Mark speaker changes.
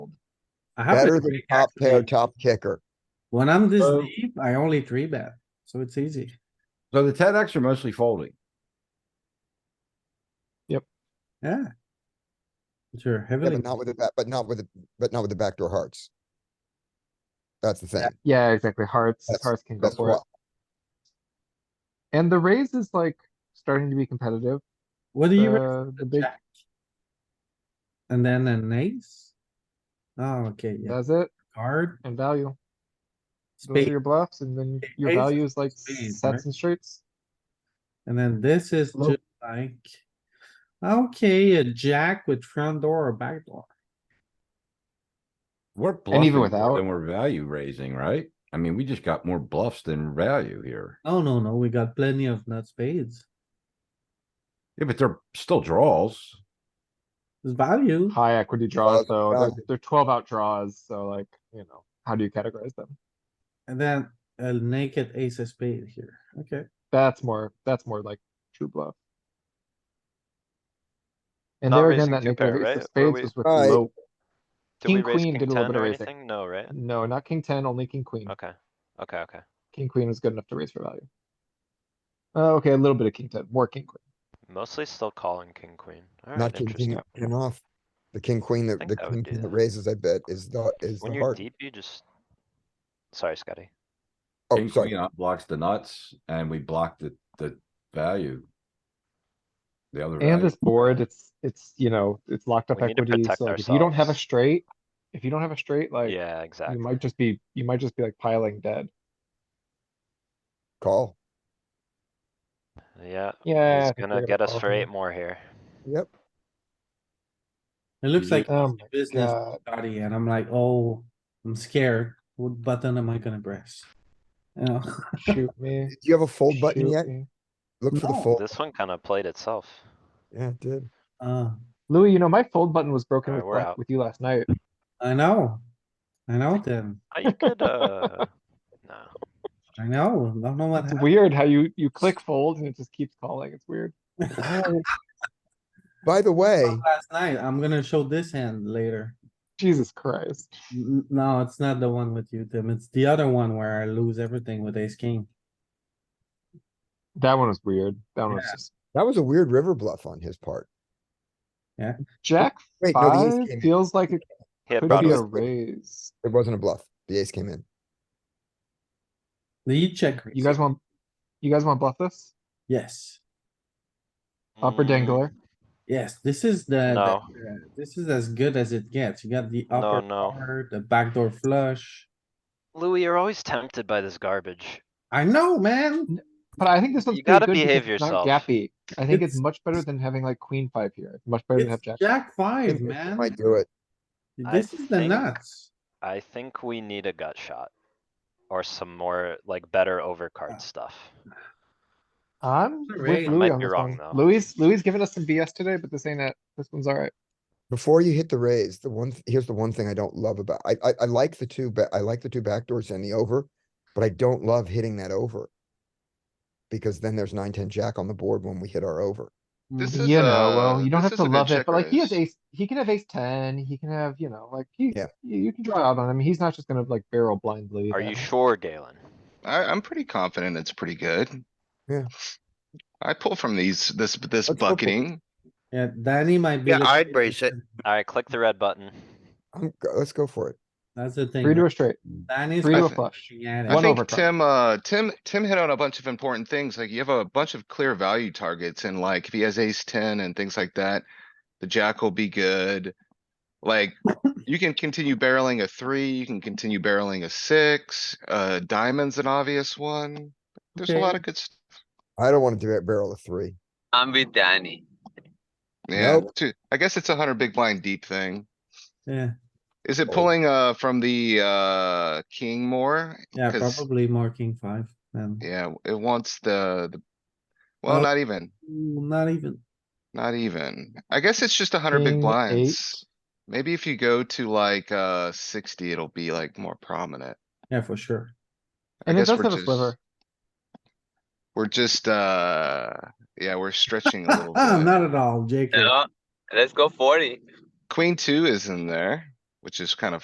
Speaker 1: I have
Speaker 2: Better
Speaker 1: a
Speaker 2: than
Speaker 1: trick,
Speaker 2: top pair,
Speaker 1: actually.
Speaker 2: top kicker.
Speaker 1: When I'm this
Speaker 3: So-
Speaker 1: deep, I only three bet, so it's easy.
Speaker 3: So the ten X are mostly folding.
Speaker 1: Yeah. Sure,
Speaker 2: Yeah,
Speaker 1: heavily.
Speaker 2: but not with the, ba- but not with, the, but not with the backdoor hearts. That's the thing.
Speaker 4: Yeah, exactly. Hearts,
Speaker 2: That's-
Speaker 4: hearts can go
Speaker 2: That's
Speaker 4: for
Speaker 2: why.
Speaker 4: it. And the raise is like starting to be competitive.
Speaker 1: What do you? raise?
Speaker 4: The, the uh, big
Speaker 1: Jack. And then an ace? Oh, okay, yeah,
Speaker 4: does it
Speaker 1: card,
Speaker 4: and value. Those are
Speaker 1: spade,
Speaker 4: your bluffs and then your
Speaker 1: Ace
Speaker 4: value is like
Speaker 1: spades, right?
Speaker 4: sets and straights.
Speaker 1: and then this is
Speaker 4: Hello?
Speaker 1: just like. Okay, a jack with front door or back door.
Speaker 3: We're
Speaker 4: even
Speaker 3: bluffing
Speaker 4: without-
Speaker 3: more than we're value raising, right? I mean, we just got more bluffs than value here.
Speaker 1: No, no, no, we got plenty of nut spades.
Speaker 3: Yeah, but they're still draws.
Speaker 1: It's value.
Speaker 4: High equity draws
Speaker 2: Draws,
Speaker 4: though, they're,
Speaker 2: value.
Speaker 4: they're twelve out draws, so like, you know, how do you categorize them?
Speaker 1: And then a naked ace of spade here, okay.
Speaker 4: That's more, that's more like true bluff. And
Speaker 5: Not
Speaker 4: there again,
Speaker 5: raising
Speaker 4: that
Speaker 5: two
Speaker 4: naked
Speaker 5: pair,
Speaker 4: ace
Speaker 5: right?
Speaker 4: of
Speaker 5: Or
Speaker 4: spades
Speaker 5: we-
Speaker 4: was with
Speaker 2: Alright.
Speaker 4: low,
Speaker 5: Did we
Speaker 4: King,
Speaker 5: raise
Speaker 4: queen
Speaker 5: king
Speaker 4: did a little
Speaker 5: ten
Speaker 4: bit of Mm-hmm.
Speaker 5: or
Speaker 4: raising.
Speaker 5: anything? No, right?
Speaker 4: no, not king ten, only king queen.
Speaker 5: Okay, okay, okay.
Speaker 4: King queen was good enough to raise for value. Uh, okay, a little bit of king ten, more king queen.
Speaker 5: Mostly still calling king, queen.
Speaker 2: Not
Speaker 5: Alright,
Speaker 2: king, king
Speaker 5: interesting.
Speaker 2: and off. The king, queen, that
Speaker 5: think
Speaker 2: the
Speaker 5: I would
Speaker 2: king
Speaker 5: do
Speaker 2: queen that
Speaker 5: that.
Speaker 2: raises, I bet, is the, is
Speaker 5: When
Speaker 2: the
Speaker 5: you're
Speaker 2: heart.
Speaker 5: deep, you just. Sorry, Scotty.
Speaker 2: Oh,
Speaker 3: King
Speaker 2: sorry.
Speaker 3: queen blocks the nuts and we block the, the value. The other.
Speaker 4: And
Speaker 3: value.
Speaker 4: this board, it's, it's, you know, it's locked up
Speaker 5: We need to
Speaker 4: equity,
Speaker 5: protect
Speaker 4: so like, if you don't have a
Speaker 5: ourselves.
Speaker 4: straight, if you don't have a straight, like, you
Speaker 5: Yeah, exactly.
Speaker 4: might just be, you might just be like piling dead.
Speaker 2: Call.
Speaker 5: Yeah,
Speaker 4: Yeah.
Speaker 5: he's
Speaker 4: I think we're
Speaker 5: gonna get us
Speaker 4: call
Speaker 5: for
Speaker 4: here.
Speaker 5: eight more here.
Speaker 2: Yep.
Speaker 1: It looks
Speaker 3: Yeah.
Speaker 1: like
Speaker 4: Oh my
Speaker 1: business,
Speaker 4: God,
Speaker 1: Scotty, and I'm like, oh, I'm scared. What button am I gonna press? You know,
Speaker 4: shoot me.
Speaker 2: Do you have a fold button
Speaker 4: shoot
Speaker 2: yet?
Speaker 4: me.
Speaker 2: Look for the
Speaker 1: No.
Speaker 2: fold.
Speaker 5: This one kinda played itself.
Speaker 2: Yeah, it did.
Speaker 1: uh,
Speaker 4: Louis, you know, my fold button was broken
Speaker 5: Alright,
Speaker 4: with,
Speaker 5: we're
Speaker 4: la-
Speaker 5: out.
Speaker 4: with you last night.
Speaker 1: I know. I know Tim.
Speaker 5: Oh, You could, uh, no.
Speaker 1: I know. I don't know what
Speaker 4: It's
Speaker 1: happened.
Speaker 4: weird how you, you click fold and it just keeps calling. It's weird.
Speaker 2: By the way,
Speaker 1: Last night, I'm gonna show this hand later.
Speaker 4: Jesus Christ.
Speaker 1: N- No, it's not the one with you, Tim. It's the other one where I lose everything with ace king.
Speaker 4: That one was weird. That one was
Speaker 1: Yeah.
Speaker 4: just,
Speaker 2: that was a weird river bluff on his part.
Speaker 4: Jack
Speaker 2: Wait, no, the
Speaker 4: five
Speaker 2: ace came in.
Speaker 4: feels like it
Speaker 5: He had
Speaker 4: could
Speaker 5: brought
Speaker 4: be
Speaker 5: us,
Speaker 4: a raise.
Speaker 2: It wasn't a bluff. The ace came in.
Speaker 1: Do you check?
Speaker 4: You guys want, you guys want bluff this?
Speaker 1: Yes,
Speaker 4: Upper
Speaker 5: Mm,
Speaker 4: dangler?
Speaker 1: yes. This is the, the-
Speaker 5: No.
Speaker 1: uh, this is as good as it gets. You got the
Speaker 5: No,
Speaker 1: upper
Speaker 5: no.
Speaker 1: card, the backdoor flush.
Speaker 5: Louis, you're always tempted by this garbage.
Speaker 1: I know, man.
Speaker 4: But I think this one's
Speaker 5: You
Speaker 4: pretty
Speaker 5: gotta
Speaker 4: good because
Speaker 5: behave
Speaker 4: it's not
Speaker 5: yourself.
Speaker 4: gappy. I think it's
Speaker 1: It's-
Speaker 4: much better than having like queen five here. It's Much better than have
Speaker 1: It's
Speaker 4: jack.
Speaker 1: Jack five,
Speaker 2: Think
Speaker 1: man.
Speaker 2: Might do it.
Speaker 5: I
Speaker 1: This is the
Speaker 5: think-
Speaker 1: nuts.
Speaker 5: I think we need a gut shot. Or some more, like, better overcard stuff.
Speaker 4: I'm
Speaker 1: Not
Speaker 4: with
Speaker 1: really. I
Speaker 4: Louis
Speaker 5: might
Speaker 4: on
Speaker 5: be
Speaker 4: this
Speaker 5: wrong,
Speaker 4: one.
Speaker 5: though.
Speaker 4: Louis, Louis giving us some BS today, but this ain't it. This one's alright.
Speaker 2: Before you hit the raise, the one, th- here's the one thing I don't love about, I, I, I like the two, but I like the two backdoors and the over, but I don't love hitting that over. Because then there's nine, ten jack on the board when we hit our over.
Speaker 6: This
Speaker 4: You
Speaker 6: is,
Speaker 4: know, well,
Speaker 6: uh,
Speaker 4: you don't
Speaker 6: this
Speaker 4: have to
Speaker 6: is a good
Speaker 4: love it,
Speaker 6: check
Speaker 4: but like he has
Speaker 6: raise.
Speaker 4: ace, he can have ace ten, he can have, you know, like he,
Speaker 2: Yeah.
Speaker 4: you you can draw out on him. He's not just gonna like barrel blindly.
Speaker 5: Are
Speaker 4: down.
Speaker 5: you sure, Galen?
Speaker 6: I, I'm pretty confident it's pretty good.
Speaker 2: Yeah.
Speaker 6: I pull from these, this,
Speaker 2: Let's
Speaker 6: this
Speaker 2: go for-
Speaker 6: bucketing.
Speaker 1: Yeah, Danny might be.
Speaker 7: Yeah,
Speaker 1: the-
Speaker 7: I'd raise it.
Speaker 5: Alright, click the red button.
Speaker 2: I'm, go- let's go for it.
Speaker 1: That's the thing.
Speaker 4: Three to a straight,
Speaker 1: Danny's
Speaker 4: three to a
Speaker 6: perfect.
Speaker 4: flush.
Speaker 1: looking at it.
Speaker 4: One
Speaker 6: I think
Speaker 4: overcard.
Speaker 6: Tim, uh, Tim, Tim hit on a bunch of important things. Like you have a bunch of clear value targets and like if he has ace ten and things like that, the jack will be good. Like you can continue barreling a three, you can continue barreling a six, uh, diamond's an obvious one. There's a
Speaker 1: Okay.
Speaker 6: lot of good, s-
Speaker 2: I don't wanna do that barrel of three.
Speaker 7: I'm with Danny.
Speaker 6: yeah,
Speaker 2: Nope.
Speaker 6: too. I guess it's a hundred big blind deep thing.
Speaker 1: Yeah,
Speaker 6: Is it
Speaker 2: Oh.
Speaker 6: pulling, uh, from the, uh, king more?
Speaker 1: yeah,
Speaker 6: 'Cause-
Speaker 1: probably marking five Um, and
Speaker 6: Yeah, it wants the, the.
Speaker 1: Oh.
Speaker 6: Well, not even,
Speaker 1: not even.
Speaker 6: not even. I guess it's just a hundred
Speaker 4: King,
Speaker 6: big
Speaker 4: eight.
Speaker 6: blinds. Maybe if you go to like, uh, sixty, it'll be like more prominent.
Speaker 1: Yeah, for sure.
Speaker 4: And it
Speaker 6: guess
Speaker 4: does
Speaker 6: we're
Speaker 4: have a
Speaker 6: just-
Speaker 4: sliver.
Speaker 6: We're just, uh, yeah, we're stretching a little bit.
Speaker 1: Not at all, Jacob.
Speaker 7: You know, let's go forty.
Speaker 6: Queen two is in there, which is kind of